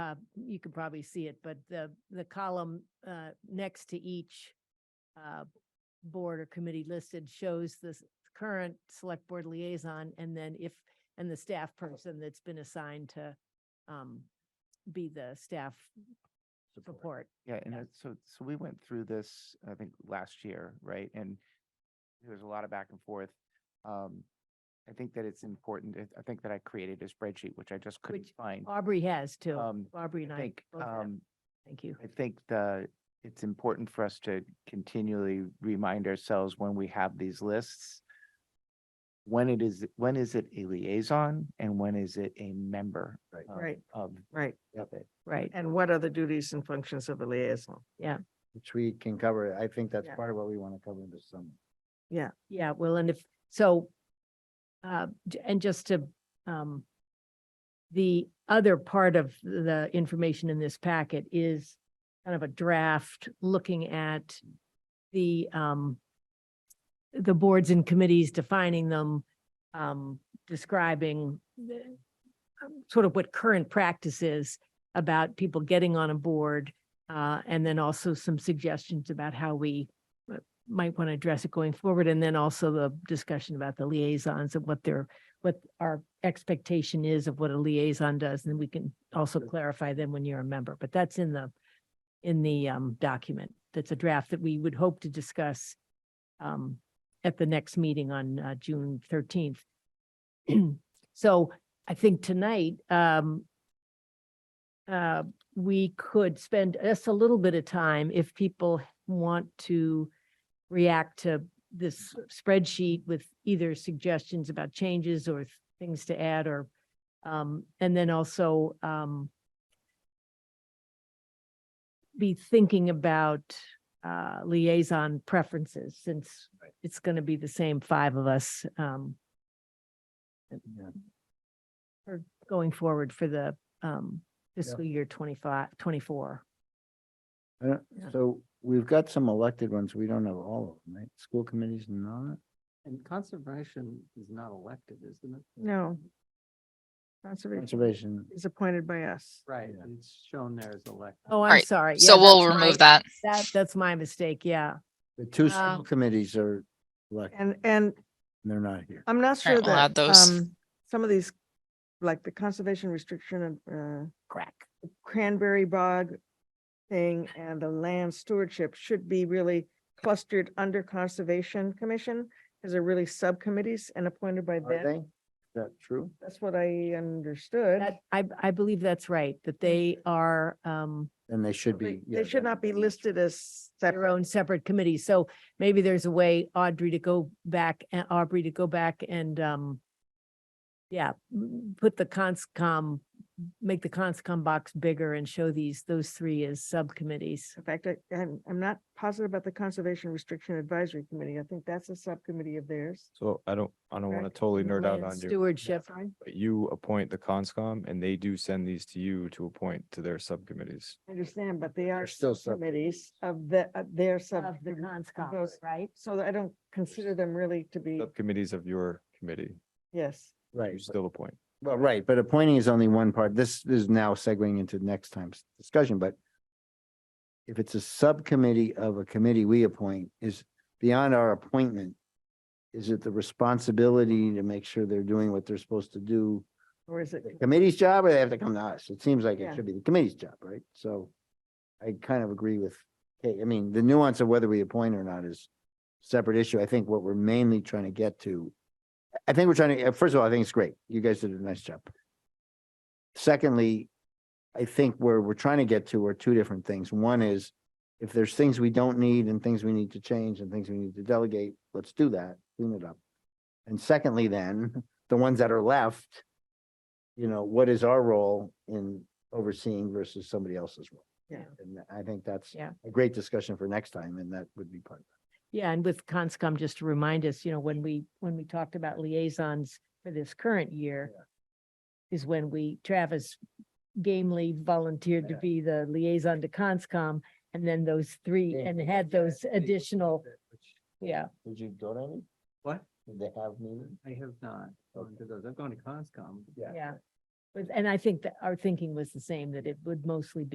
uh, you can probably see it, but the, the column, uh, next to each, uh, board or committee listed shows the s- current select board liaison and then if, and the staff person that's been assigned to, um, be the staff report. Yeah, and Yeah. that- so, so we went through this, I think, last year, right? And there was a lot of back and forth. Um, I think that it's important. I- I think that I created a spreadsheet, which I just couldn't Which find. Aubrey has too. Um, Aubrey and I I, think, both have. um, thank you. I think the, it's important for us to continually remind ourselves when we have these lists. When it is, when is it a liaison and when is it a member? Right. um, Right. Of, Right, of it. Right. and what are the duties and functions of a liaison? Which we can cover. I think that's Yeah. part of what we want to cover in the summer. Yeah, well, and if, so, uh, j- and just to, um, the other part of the information in this packet is kind of a draft looking at the, um, the boards and committees, defining them, um, describing the- um, sort of what current practice is about people getting on a board, uh, and then also some suggestions about how we might want to address it going forward, and then also the discussion about the liaisons and what their, what our expectation is of what a liaison does, and we can also clarify them when you're a member, but that's in the, in the um document. That's a draft that we would hope to discuss um at the next meeting on uh June thirteenth. So I think tonight um uh we could spend just a little bit of time if people want to react to this spreadsheet with either suggestions about changes or th- things to add or, um, and then also, um, be thinking about, uh, liaison preferences since it's going to be the same five of us, um, Yeah. going forward for the, um, Yeah. fiscal year 25, 24. I don't- Yeah. Uh, So we've got some elected ones. We don't have all of them, right? School committee's not. And conservation is not elected, isn't it? No. Conservation Conservation, is appointed by us. Right, Yeah. and it's shown there as elected. Oh, I'm right, sorry. So Yeah, we'll that's my- remove that. That, that's my mistake. Yeah. the two Um, school committees are elected. And, and and They're not here. I'm not sure Alright, we'll add that, those. um, some of these, like the conservation restriction and, uh, Crack. cranberry bog thing and the land stewardship should be really clustered under Conservation Commission, because they're really subcommittees and appointed by Are them. they? Is that true? That's what I understood. That, I, I believe that's right, that they are, um, Then they should They be. they should not be listed as their separate. own separate committees. So maybe there's a way Audrey to go back, uh, Aubrey to go back and, um, yeah, m- put the conscom, make the conscom box bigger and show these, those three as subcommittees. In fact, I, I'm, I'm not positive about the Conservation Restriction Advisory Committee. I think that's a subcommittee of theirs. So I don't, I don't want to Correct. totally nerd out Land on you, Stewardship. but you appoint the conscom and they do send these to you to appoint to their subcommittees. I understand, but they are They're still sub, committees of the, of their sub. Of the conscom, those- right? So I don't consider them really to be, Subcommittees of your committee, yes. right. you still appoint. Well, right, but appointing is only one part. This is now segueing into next time's discussion, but if it's a subcommittee of a committee we appoint, is beyond our appointment, is it the responsibility to make sure they're doing what they're supposed to do? Or is it? The committee's job, or they have to come to us? It seems like Yeah. it should be the committee's job, right? So I kind of agree with, Kate. I mean, the nuance of whether we appoint or not is a separate issue. I think what we're mainly trying to get to, I think we're trying to, uh, first of all, I think it's great. You guys did a nice job. Secondly, I think where we're trying to get to are two different things. One is if there's things we don't need and things we need to change and things we need to delegate, let's do that, clean it up. And secondly, then, the ones that are left, you know, what is our role in overseeing versus somebody else's role? Yeah. And I think that's Yeah. a great discussion for next time, and that would be part of Yeah, and with Conscom, just to remind us, you know, when we, when we talked about liaisons for this current year is when we, Travis gamely volunteered to Yeah. be the liaison to Conscom and then those three Yeah. and had those additional, yeah. it. Did you go to any? What? Did they have meetings? I have not gone to those. I've gone to Conscom. Yeah. Yeah, But- And I think that our thinking was the same, that it would mostly be.